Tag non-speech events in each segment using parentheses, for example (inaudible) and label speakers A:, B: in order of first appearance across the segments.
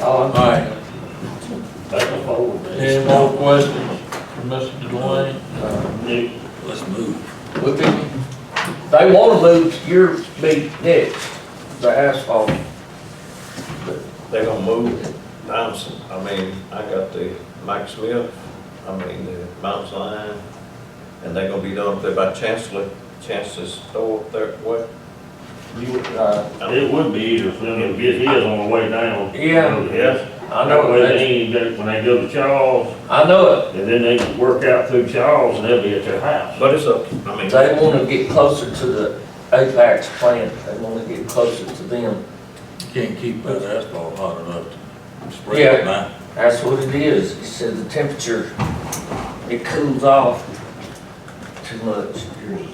A: All in favor?
B: Alright, any more questions for Mr. Dwayne?
A: Uh,
B: Let's move.
A: We can, they wanna move to your meet next, the asphalt.
C: They're gonna move it. I'm, s- I mean, I got the Mike Smith, I mean, the Mountain Line, and they're gonna be done up there by Chancellor, Chancellor's store up there, what?
A: You, uh,
C: I
D: It would be easier for them to get his on the way down.
A: Yeah.
D: Yes.
A: I know,
D: That way
A: it.
D: they ain't got- when they go to Charles,
A: I know
D: and then they can work out through Charles, and they'll be at their house.
C: But it's up, I
A: it,
C: mean,
A: they wanna get closer to the Apex plant, they wanna get closer to them,
B: Can't keep that asphalt hot enough to spread
A: Yeah.
B: it now.
A: that's what it is, he said the temperature, it cools off too much.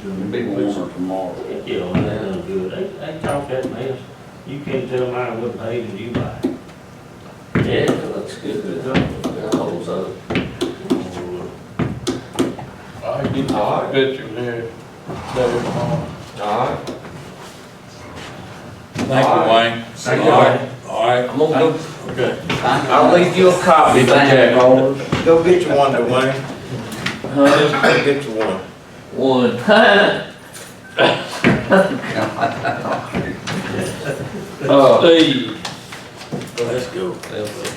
E: It'll be warmer tomorrow.
D: You know, that ain't good. They, they talk that mess. You can't tell mine what page did you buy.
A: Yeah, it looks good, it holds up.
B: I can get some pictures here, later tomorrow.
E: Alright.
B: Thank you, Wayne.
A: Thank you,
B: Alright, Alright,
A: I'm gonna go,
B: okay.
A: I'll leave you a copy,
E: Thank you.
A: Jack.
C: go get you one, Dwayne,
A: Huh?
C: go get you one.
A: One.
B: Oh.
A: Uh,
B: Steve. Let's go.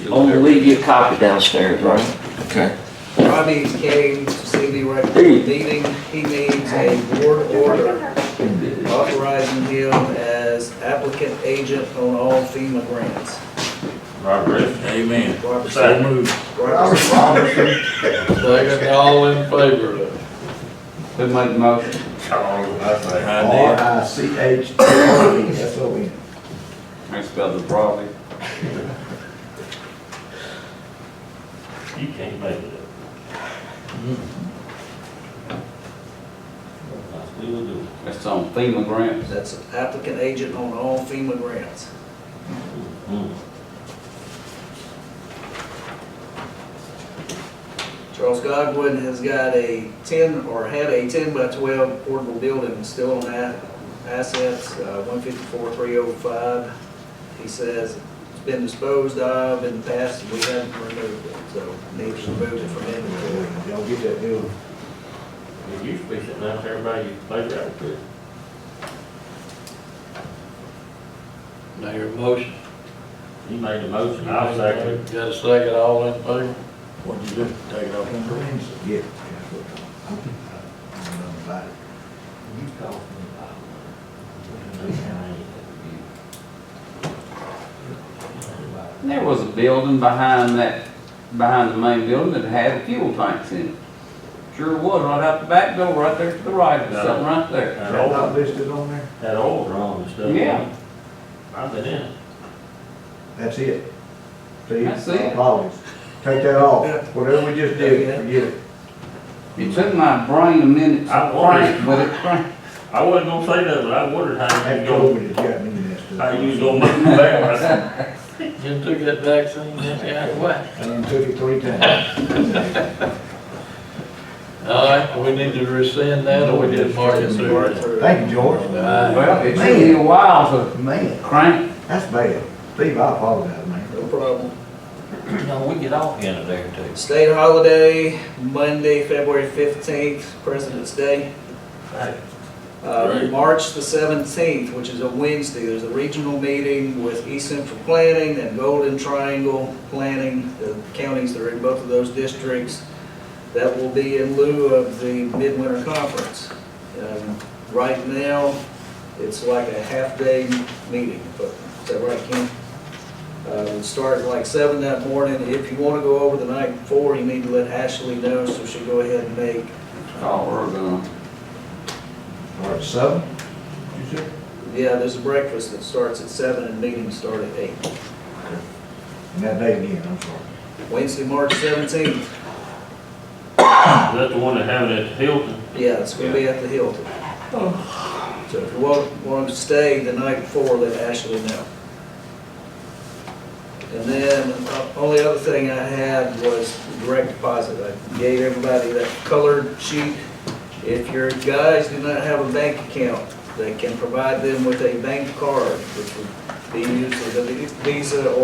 A: I'm gonna leave you a copy downstairs, right? Okay.
F: Rodney came to see me right before the meeting. He needs a board order authorizing him as applicant agent on all FEMA grants.
D: Robert,
B: Amen.
F: Robert
B: So moved.
F: Robert-
B: Second, all in favor of it.
E: Who made the motion?
D: Charles, I say.
B: I did.
G: I C H T R E, that's what we.
E: I spelled it broadly.
D: You can't make it up. Mm-hmm. That's what we'll do.
E: That's on FEMA grants.
F: That's applicant agent on all FEMA grants.
D: Mm-hmm.
F: Charles Godwin has got a ten, or had a ten by twelve portable building still on that assets, uh, one fifty-four, three oh five. He says it's been disposed of in the past, and we haven't removed it, so need to remove it from inventory.
G: Y'all get that deal.
D: It used to be sitting out there by your playground, too.
B: Now your motion.
D: You made a motion, I'll second it.
B: Got a second, all in favor? What'd you do? Take it off.
G: Yeah. that's what I'm- I'm gonna buy it. You call me.
E: There was a building behind that, behind the main building that had fuel tanks in it. Sure was, right out the back door, right there to the right, there's something right there.
D: That
G: That not
D: old,
G: listed on there?
D: that old drum and stuff.
E: Yeah.
D: I've been in it.
G: That's it. See?
E: That's it.
G: Apologies. Take that off. Whatever we just did, forget it.
E: It took my brain a minute
D: I
E: to
D: wondered.
E: crank, but it cranked.
D: I wasn't gonna say that, but I wondered how you
G: That
D: go,
G: COVID has got me in this. stuff.
D: how you gonna make me
B: (laughs)
D: back. I said,
B: You took that vaccine, that's out of whack.
G: I done took it three times.
B: All right, we need to rescind that or we did mark it through.
G: Thank you, George.
B: Aye.
E: Well, it took me a while
G: Man,
E: to crank.
G: that's bad. Steve, I apologize, man.
F: No problem.
B: No, we get off into there too.
F: State holiday, Monday, February fifteenth, President's Day. Uh,
B: Right.
F: March the seventeenth, which is a Wednesday, there's a regional meeting with East Central Planning and Golden Triangle Planning, the counties that are in both of those districts. That will be in lieu of the Midwinter Conference. Um, Right now, it's like a half-day meeting, but, is that right, Ken? Uh, Start at like seven that morning. If you want to go over the night before, you need to let Ashley know, so she'll go ahead and make,
E: Oh, we're gonna,
G: Or at seven, you said?
F: yeah, there's a breakfast that starts at seven and meetings start at eight.
G: And that day again, I'm sorry.
F: Wednesday, March seventeenth,
D: Is that the one that having at Hilton?
F: yeah, it's gonna be at the Hilton. So if you want, want to stay the night before, let Ashley know. And then, uh, only other thing I had was direct deposit. I gave everybody that colored sheet. If your guys do not have a bank account, they can provide them with a bank card, which would be used as a Visa or